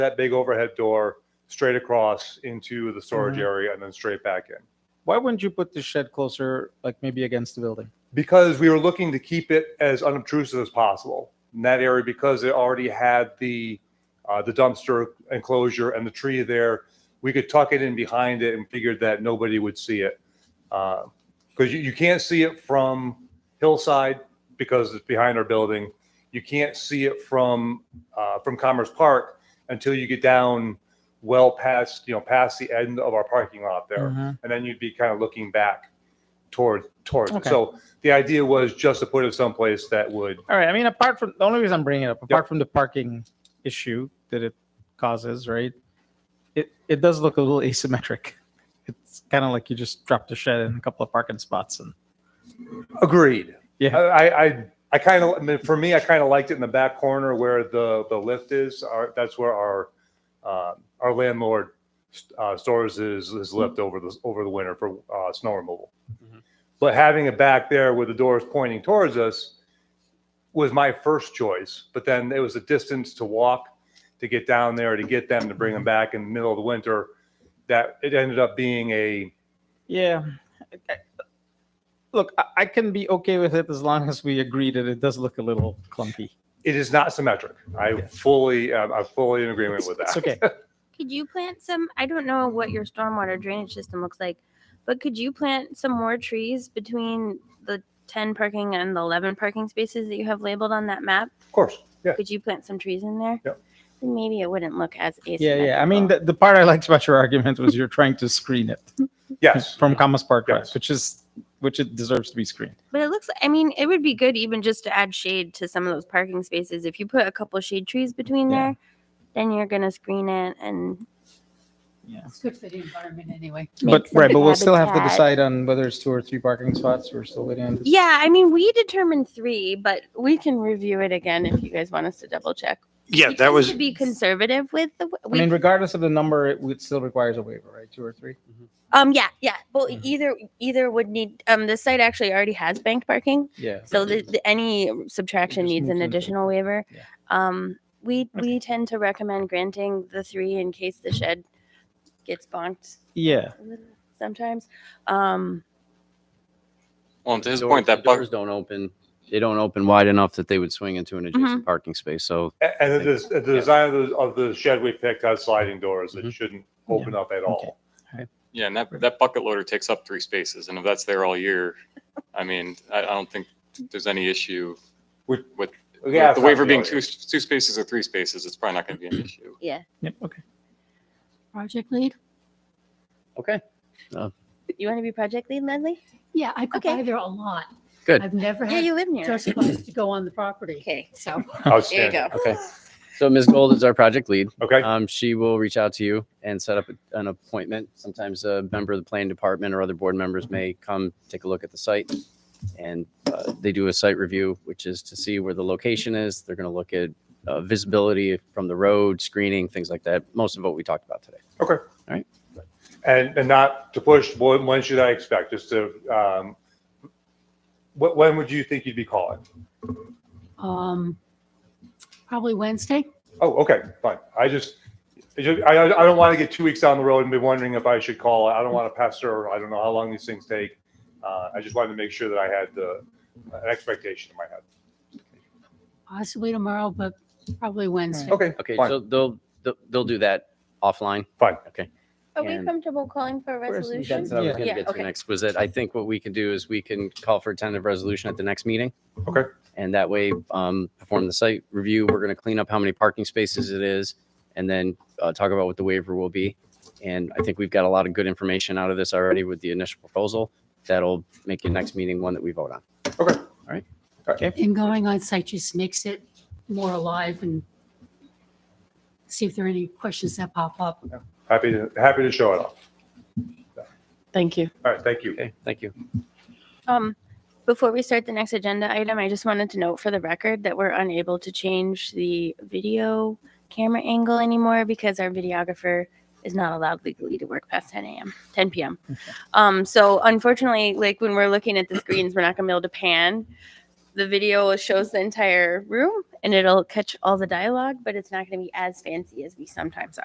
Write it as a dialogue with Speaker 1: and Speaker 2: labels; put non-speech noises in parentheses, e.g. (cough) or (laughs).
Speaker 1: that big overhead door straight across into the storage
Speaker 2: Mhm.
Speaker 1: area and then straight back in.
Speaker 2: Why wouldn't you put the shed closer, like maybe against the building?
Speaker 1: Because we were looking to keep it as unobtrusive as possible in that area because it already had the uh, the dumpster enclosure and the tree there. We could tuck it in behind it and figured that nobody would see it. Because you, you can't see it from Hillside because it's behind our building. You can't see it from uh, from Commerce Park until you get down well past you know past the end of our parking lot there
Speaker 2: Mhm.
Speaker 1: and then you'd be kind of looking back toward towards it.
Speaker 2: Okay.
Speaker 1: So the idea was just to put it someplace that would
Speaker 2: All right. I mean, apart from the only reason I'm bringing it up,
Speaker 1: Yep.
Speaker 2: apart from the parking issue that it causes, right? It it does look a little (laughs) asymmetric. It's kind of like you just dropped a shed in a couple of parking spots, and
Speaker 1: agreed.
Speaker 2: Yeah.
Speaker 1: I I, I kind of I mean, for me I kind of liked it in the back corner where the the lift is. Our, that's where our uh, our landlord uh, stores his his lift over the over the winter for uh, snow removal.
Speaker 2: Mhm.
Speaker 1: But having it back there with the doors pointing towards us was my first choice. But then it was a distance to walk to get down there to get them to bring them back in the middle of the winter. That it ended up being a
Speaker 2: yeah. I- I- Look, I, I can be okay with it as long as we agree that it does look a little clunky.
Speaker 1: it is not symmetric. I fully I'm, I'm fully in agreement with that.
Speaker 2: It's okay.
Speaker 3: Could you plant some? I don't know what your stormwater drainage system looks like, but could you plant some more trees between the 10 parking and the 11 parking spaces that you have labeled on that map?
Speaker 1: Of course. Yeah.
Speaker 3: Could you plant some trees in there?
Speaker 1: Yep.
Speaker 3: Then Maybe it wouldn't look as
Speaker 2: Yeah,
Speaker 3: asymmetrical.
Speaker 2: yeah. I mean, the, the part I liked about your argument was you're trying to screen it.
Speaker 1: Yes.
Speaker 2: from Commerce Park Drive,
Speaker 1: Yes.
Speaker 2: which is which it deserves to be screened.
Speaker 3: But it looks, I mean, it would be good even just to add shade to some of those parking spaces. If you put a couple shade trees between
Speaker 2: Yeah.
Speaker 3: there, then you're going to screen it and
Speaker 4: It's good for the environment anyway.
Speaker 2: But
Speaker 3: make some
Speaker 2: right, but we'll still have to
Speaker 3: habitat.
Speaker 2: decide on whether it's two or three parking spots. We're still waiting on this.
Speaker 3: Yeah, I mean, we determined three, but we can review it again if you guys want us to double check.
Speaker 5: Yeah,
Speaker 3: We
Speaker 5: that
Speaker 3: tend
Speaker 5: was,
Speaker 3: to be conservative with the
Speaker 2: I
Speaker 3: we,
Speaker 2: mean, regardless of the number, it would still requires a waiver, right? Two or three.
Speaker 3: um yeah yeah well
Speaker 2: Mhm.
Speaker 3: either either would need um the site actually already has banked parking
Speaker 2: Yeah.
Speaker 3: so the, the, any subtraction
Speaker 2: Just
Speaker 3: needs
Speaker 2: move
Speaker 3: an
Speaker 2: to the-
Speaker 3: additional waiver
Speaker 2: Yeah.
Speaker 3: um we we tend to recommend granting the three in case the shed gets bonked
Speaker 2: Yeah.
Speaker 3: a little sometimes um
Speaker 6: Well, and to his
Speaker 7: Door-
Speaker 6: point, that
Speaker 7: the
Speaker 6: buck,
Speaker 7: Doors don't open, they don't open wide enough that they would swing into an adjacent parking space, so.
Speaker 1: A- And the, the design of the, of the shed we picked has sliding doors. It
Speaker 7: Mhm.
Speaker 1: shouldn't open up at all.
Speaker 6: yeah, and that, that bucket loader takes up three spaces, and if that's there all year, I mean, I, I don't think there's any issue.
Speaker 1: With-
Speaker 6: With,
Speaker 1: Yeah,
Speaker 6: with the waiver being two, two spaces or three spaces, it's probably not gonna be an issue.
Speaker 2: Yep. Okay.
Speaker 4: Project lead?
Speaker 7: Okay.
Speaker 3: you want to be project lead Medley
Speaker 4: Yeah, I go
Speaker 3: Okay.
Speaker 4: by there a lot.
Speaker 7: Good.
Speaker 4: I've never
Speaker 3: yeah
Speaker 4: had
Speaker 3: you live near
Speaker 4: just supposed to go on the property,
Speaker 3: okay
Speaker 4: so.
Speaker 3: there you
Speaker 1: Outstanding.
Speaker 3: go
Speaker 7: Okay. So Ms. Gold is our project lead.
Speaker 1: Okay.
Speaker 7: Um, she will reach out to you and set up an appointment. Sometimes a member of the planning department or other board members may come take a look at the site. And uh, they do a site review, which is to see where the location is. They're going to look at uh, visibility from the road, screening, things like that. Most of what we talked about today.
Speaker 1: Uh, And, and not to push, when, when should I expect? Just to, um, wh- when would you think you'd be calling?
Speaker 4: Um, probably Wednesday.
Speaker 1: Oh, okay, fine. I just, I, just- I I don't want to get two weeks down the road and be wondering if I should call. I don't want to pester. I don't know how long these things take. Uh, I just wanted to make sure that I had the an expectation in my head.
Speaker 4: possibly tomorrow, but probably Wednesday.
Speaker 1: Okay.
Speaker 7: Okay,
Speaker 1: fine.
Speaker 7: so they'll, they'll, they'll do that offline.
Speaker 3: are we
Speaker 7: And-
Speaker 3: comfortable calling for a resolution
Speaker 7: That's what I was
Speaker 2: Yeah.
Speaker 7: gonna
Speaker 3: Yeah,
Speaker 7: get to
Speaker 3: okay.
Speaker 7: next, was that I think what we can do is we can call for a tentative resolution at the next meeting.
Speaker 1: Okay.
Speaker 7: And that way, um, perform the site review, we're gonna clean up how many parking spaces it is, and then, uh, talk about what the waiver will be. And I think we've got a lot of good information out of this already with the initial proposal. That'll make your next meeting one that we vote on.
Speaker 4: And going on site just makes it more alive and see if there are any questions that pop up.
Speaker 1: Happy to, happy to show it off.
Speaker 3: thank you
Speaker 1: All right, thank you.
Speaker 7: Okay, thank you.
Speaker 3: Um, before we start the next agenda item, I just wanted to note for the record that we're unable to change the video camera angle anymore because our videographer is not allowed legally to work past 10 a.m., 10 p.m. Um, so unfortunately, like when we're looking at the screens, we're not gonna be able to pan the video shows the entire room and it'll catch all the dialogue, but it's not going to be as fancy as we sometimes are.